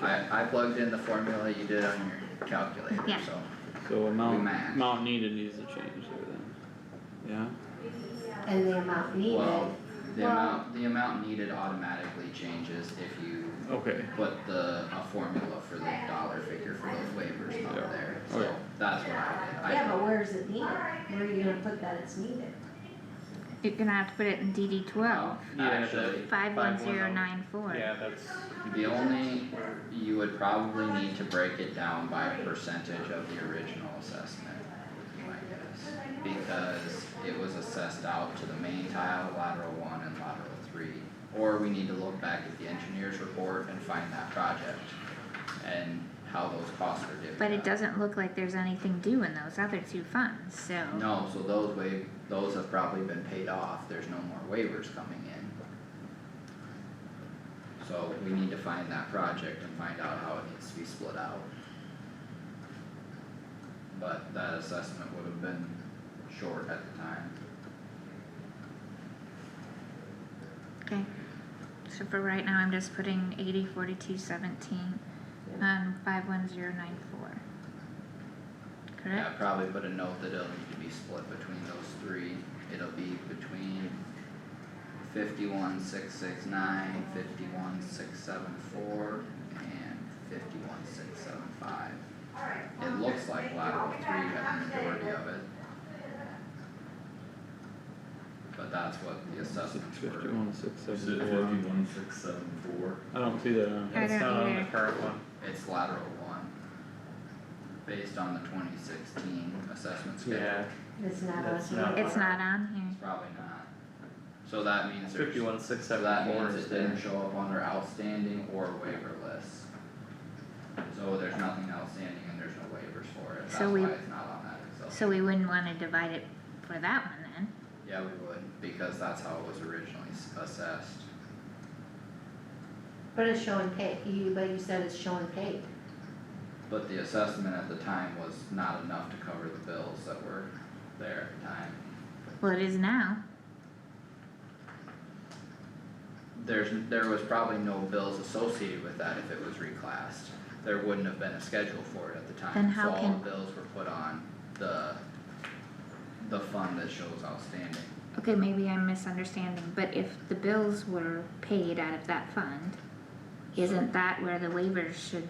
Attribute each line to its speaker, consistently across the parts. Speaker 1: I, I plugged in the formula you did on your calculator,
Speaker 2: Yeah.
Speaker 1: so.
Speaker 3: So amount,
Speaker 1: match.
Speaker 3: amount needed needs to change there then, yeah?
Speaker 4: and the amount needed,
Speaker 1: Well, the
Speaker 2: Well-
Speaker 1: amount, the amount needed automatically changes if you
Speaker 3: Okay.
Speaker 1: put the, a formula for the dollar figure for those waivers
Speaker 3: Yeah.
Speaker 1: on there, so
Speaker 3: Okay.
Speaker 1: that's what I did.
Speaker 4: yeah,
Speaker 1: I,
Speaker 4: but where's it needed? Where are you gonna put that it's needed?
Speaker 2: You're gonna have to put it in DD twelve,
Speaker 1: no,
Speaker 5: Yeah,
Speaker 1: actually,
Speaker 2: five one zero nine four.
Speaker 5: Yeah, that's,
Speaker 1: the only, you would probably need to break it down by percentage of the original assessment, my guess. Because it was assessed out to the main tile, lateral one and lateral three. Or we need to look back at the engineer's report and find that project and how those costs are divvied
Speaker 2: But it
Speaker 1: up.
Speaker 2: doesn't look like there's anything due in those other two funds, so.
Speaker 1: No, so those wa- those have probably been paid off, there's no more waivers coming in. So we need to find that project and find out how it needs to be split out. But that assessment would have been short at the time.
Speaker 2: Okay, so for right now, I'm just putting eighty forty-two seventeen on five one zero nine four.
Speaker 1: Yeah,
Speaker 2: Correct?
Speaker 1: probably put a note that it'll need to be split between those three, it'll be between fifty-one, six, six, nine, fifty-one, six, seven, four, and fifty-one, six, seven, five. It looks like lateral three had a majority of it. But that's what the assessments were,
Speaker 3: Fifty-one, six,
Speaker 6: Is
Speaker 3: seven,
Speaker 6: it
Speaker 3: four,
Speaker 6: fifty-one, six, seven, four?
Speaker 3: I don't see that on,
Speaker 2: I
Speaker 5: it's
Speaker 2: don't
Speaker 5: not on the
Speaker 2: either.
Speaker 5: current one.
Speaker 1: it's lateral one. Based on the twenty sixteen assessment schedule.
Speaker 5: Yeah,
Speaker 4: It's not
Speaker 5: That's
Speaker 4: us.
Speaker 5: not-
Speaker 2: It's not on here.
Speaker 1: Probably not. So that means there's.
Speaker 5: fifty-one, six,
Speaker 1: So
Speaker 5: seven,
Speaker 1: that
Speaker 5: four
Speaker 1: means
Speaker 5: is
Speaker 1: it
Speaker 5: there.
Speaker 1: didn't show up under outstanding or waiver list. So there's nothing outstanding and there's no waivers for it, that's
Speaker 2: So
Speaker 1: why
Speaker 2: we-
Speaker 1: it's not on that Excel.
Speaker 2: So we wouldn't wanna divide it for that one then.
Speaker 1: Yeah, we would, because that's how it was originally s- assessed.
Speaker 4: But it's showing paid, you, but you said it's showing paid.
Speaker 1: But the assessment at the time was not enough to cover the bills that were there at the time.
Speaker 2: Well, it is now.
Speaker 1: There's, there was probably no bills associated with that if it was reclassed. There wouldn't have been a schedule for it at the time.
Speaker 2: Then how
Speaker 1: So all
Speaker 2: can-
Speaker 1: the bills were put on the, the fund that shows outstanding.
Speaker 2: Okay, maybe I'm misunderstanding, but if the bills were paid out of that fund, isn't that where the waivers should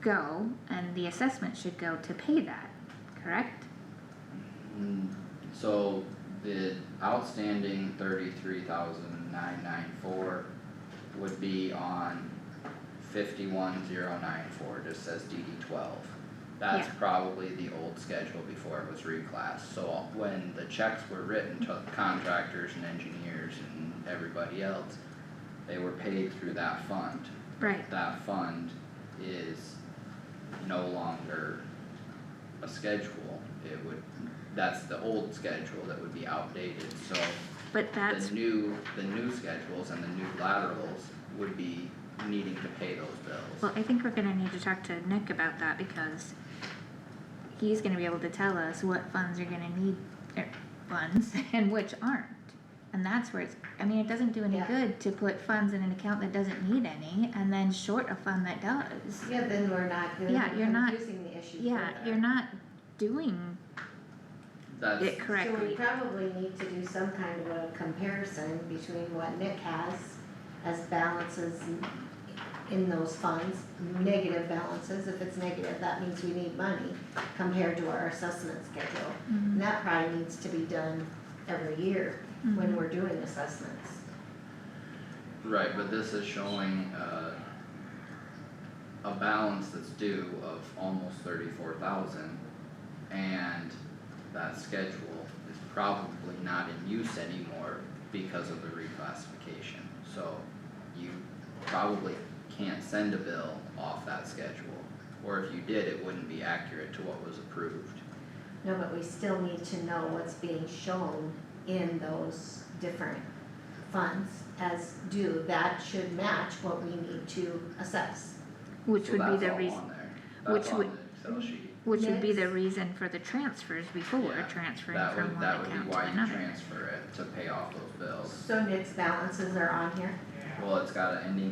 Speaker 2: go and the assessment should go to pay that, correct?
Speaker 1: Mm, So the outstanding thirty-three thousand nine nine four would be on fifty-one zero nine four, just says DD twelve. That's
Speaker 2: Yeah.
Speaker 1: probably the old schedule before it was reclassed, so when the checks were written to contractors and engineers and everybody else, they were paid through that fund
Speaker 2: Right.
Speaker 1: that fund is no longer a schedule, it would, that's the old schedule that would be outdated, so
Speaker 2: But that's
Speaker 1: the new, the new schedules and the new laterals would be needing to pay those
Speaker 2: Well,
Speaker 1: bills.
Speaker 2: I think we're gonna need to talk to Nick about that because he's gonna be able to tell us what funds are gonna need, er, funds and which aren't. And that's where it's, I mean, it doesn't do any
Speaker 4: Yeah.
Speaker 2: good to put funds in an account that doesn't need any and then short a fund that does.
Speaker 4: Yeah, then we're not, then
Speaker 2: Yeah, you're not-
Speaker 4: we're confusing the issue
Speaker 2: Yeah,
Speaker 4: further.
Speaker 2: you're not doing
Speaker 1: That's,
Speaker 2: it
Speaker 4: So we
Speaker 2: correctly.
Speaker 4: probably need to do some kind of a comparison between what Nick has as balances in those funds, negative balances, if it's negative, that means we need money compared to our assessment schedule.
Speaker 2: Mm-hmm.
Speaker 4: And that probably needs to be done every year
Speaker 2: Mm-hmm.
Speaker 4: when we're doing assessments.
Speaker 1: right, but this is showing, uh, a balance that's due of almost thirty-four thousand, and that schedule is probably not in use anymore because of the reclassification, so you probably can't send a bill off that schedule, or if you did, it wouldn't be accurate to what was approved.
Speaker 4: No, but we still need to know what's being shown in those different funds as due, that should match what we need to assess.
Speaker 2: Which
Speaker 1: So
Speaker 2: would be
Speaker 1: that's
Speaker 2: the
Speaker 1: all
Speaker 2: reason,
Speaker 1: on there.
Speaker 2: which
Speaker 1: That's on
Speaker 2: would-
Speaker 1: the Excel sheet.
Speaker 2: which would be the
Speaker 4: Next.
Speaker 2: reason for the transfers before,
Speaker 1: Yeah,
Speaker 2: transferring
Speaker 1: That
Speaker 2: from
Speaker 1: would,
Speaker 2: one
Speaker 1: that would be
Speaker 2: account to
Speaker 1: why you
Speaker 2: another.
Speaker 1: transfer it, to pay off those bills.
Speaker 4: So Nick's balances are on here?
Speaker 1: Well, it's got an ending